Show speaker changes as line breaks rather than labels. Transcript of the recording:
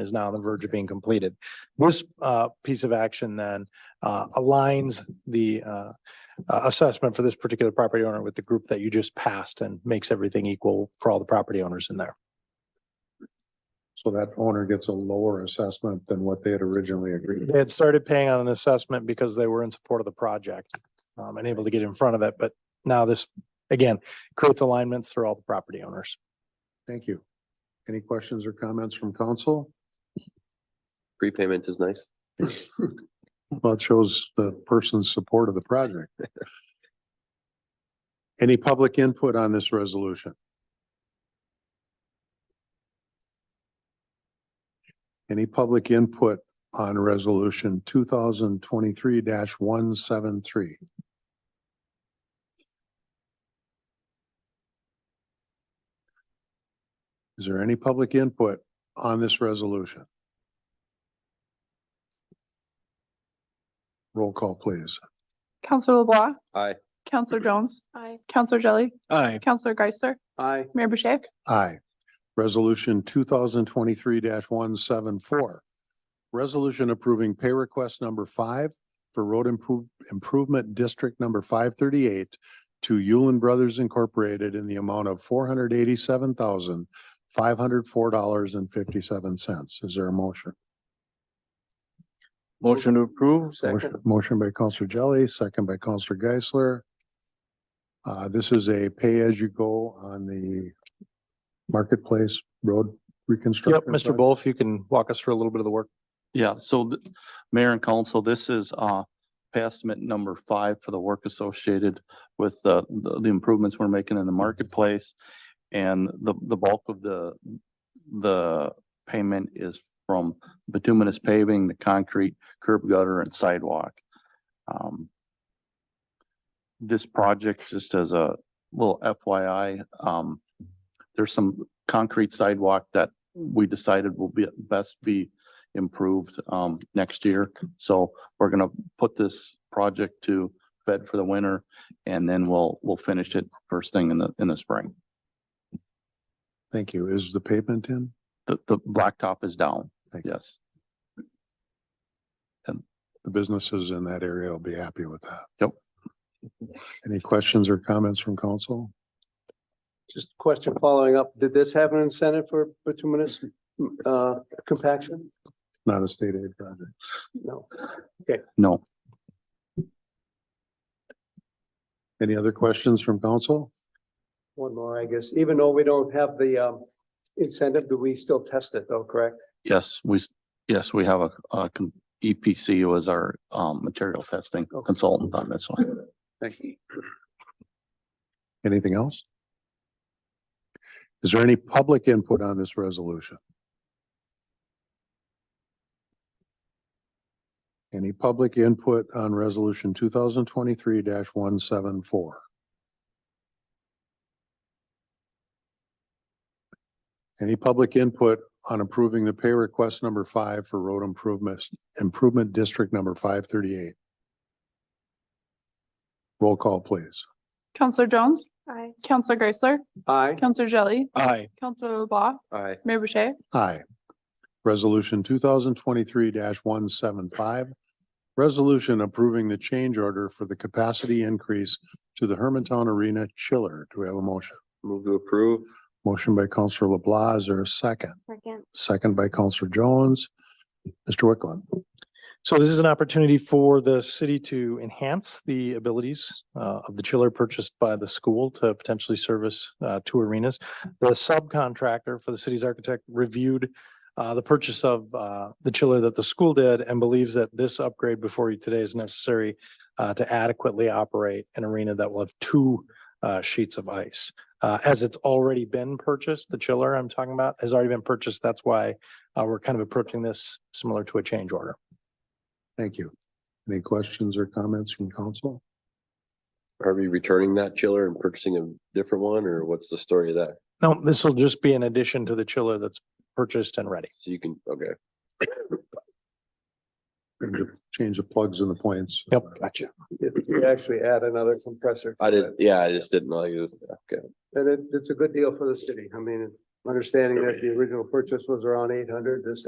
is now on the verge of being completed. This uh, piece of action then uh, aligns the uh, uh, assessment for this particular property owner with the group that you just passed and makes everything equal for all the property owners in there.
So that owner gets a lower assessment than what they had originally agreed.
They had started paying on an assessment because they were in support of the project um, and able to get in front of it, but now this, again, creates alignments for all the property owners.
Thank you. Any questions or comments from council?
Prepayment is nice.
Well, it shows the person's support of the project. Any public input on this resolution? Any public input on resolution two thousand twenty-three one seven three? Is there any public input on this resolution? Roll call, please.
Counselor LeBlanc.
Aye.
Counselor Jones. Aye. Counselor Jelly.
Aye.
Counselor Geisler.
Aye.
Mayor Boucher.
Aye. Resolution two thousand twenty-three one seven four. Resolution approving pay request number five for road improve, improvement district number five thirty-eight to Yulin Brothers Incorporated in the amount of four hundred eighty-seven thousand, five hundred four dollars and fifty-seven cents. Is there a motion?
Motion to approve.
Motion- Motion by Counselor Jelly, second by Counselor Geisler. Uh, this is a pay-as-you-go on the marketplace road
Yep,
reconstruction.
Mr.
project.
Wolf, you can walk us through a little bit of the work.
Yeah, so th- mayor and council, this is uh passment number five for the work associated with the the the improvements we're making in the marketplace. And the the bulk of the the payment is from bituminous paving, the concrete curb gutter and sidewalk. Um, This project, just as a little FYI, um, there's some concrete sidewalk that we decided will be best be improved um next year. So we're gonna put this project to bed for the winter and then we'll, we'll finish it first thing in the, in the spring.
Thank you. Is the pavement in?
The, the blacktop is down,
Thank you.
yes.
The businesses in that area will be happy with that.
Yep.
Any questions or comments from council?
Just a question following up, did this have an incentive for bituminous uh compaction?
Not a state aid project.
No.
No,
Any other questions from council?
One more, I guess, even though we don't have the um incentive, do we still test it though, correct?
yes, we, s- yes, we have a, a con- EPC was our um material testing consultant on this one.
Thank you.
Anything else? Is there any public input on this resolution? Any public input on resolution two thousand twenty-three one seven four? Any public input on approving the pay request number five for road improvements, improvement district number five thirty-eight? Roll call, please.
Counselor Jones. Aye. Counselor Geisler.
Aye,
Counselor Jelly.
Aye.
Counselor LeBlanc.
Aye.
Mayor Boucher.
Aye. Resolution two thousand twenty-three one seven five. Resolution approving the change order for the capacity increase to the Hermantown Arena chiller. Do we have a motion?
Move to approve.
Motion by Counselor LeBlanc, is there a second?
Second.
Second by Counselor Jones. Mr. Wicklund,
So this is an opportunity for the city to enhance the abilities uh, of the chiller purchased by the school to potentially service uh, two arenas. The subcontractor for the city's architect reviewed uh, the purchase of uh, the chiller that the school did and believes that this upgrade before you today is necessary uh, to adequately operate an arena that will have two uh, sheets of ice. Uh, As it's already been purchased, the chiller I'm talking about has already been purchased. That's why uh, we're kind of approaching this similar to a change order.
thank you. Any questions or comments from council?
Are we returning that chiller and purchasing a different one or what's the story of that?
No, this will just be an addition to the chiller that's purchased and ready.
So you can, okay.
Change the plugs and the points.
Yep.
gotcha. It- We actually add another compressor.
I did, yeah, I just didn't know. you was- Okay.
And it it's a good deal for the city. I mean, understanding that the original purchase was around eight hundred, this